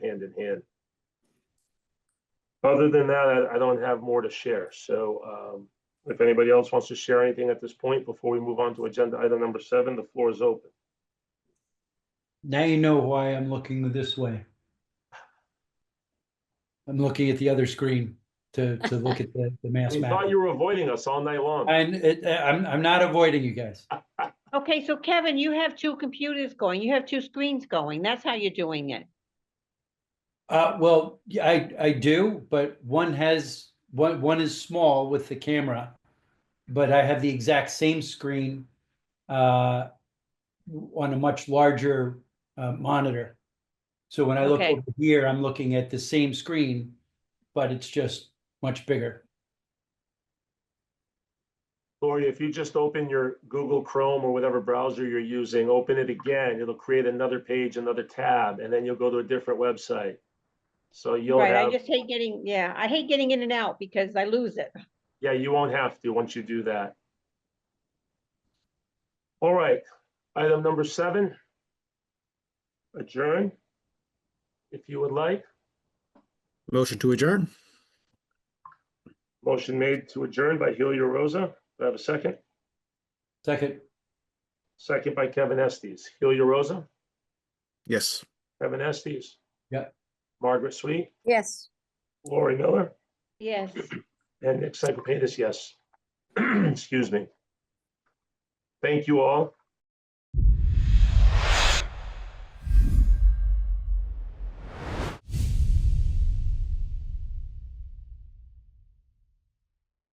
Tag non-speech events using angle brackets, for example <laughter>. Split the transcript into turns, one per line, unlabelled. hand in hand. Other than that, I- I don't have more to share. So um, if anybody else wants to share anything at this point before we move on to agenda item number seven, the floor is open.
Now you know why I'm looking this way. I'm looking at the other screen to, to look at the, the mass
We
map.
thought <laughs> you were avoiding us all night long.
And it, uh, I'm, I'm not avoiding you guys.
Okay, so Kevin, you have two computers going, you have two screens going, that's how you're doing it.
Uh, well, yeah, I, I do, but one has, one, one is small with the camera. But I have the exact same screen, uh, on a much larger, uh, monitor. So when I look
Okay.
over here, I'm looking at the same screen, but it's just much bigger.
Lori, if you just open your Google Chrome or whatever browser you're using, open it again, it'll create another page, another tab, and then you'll go to a different website. So you'll
Right, I
have,
just hate getting, yeah, I hate getting in and out because I lose it.
yeah, you won't have to once you do that. All right, item number seven. Adjourn, if you would like.
Motion to adjourn?
Motion made to adjourn by Helio Rosa. Do I have a second?
Second,
Second by Kevin Estes. Helio Rosa,
Yes.
Kevin Estes.
Yeah.
Margaret Sweet,
Yes.
Lori Miller,
Yes,
<clears throat> and Nick Cyclepatis, yes. Excuse me. Thank you all.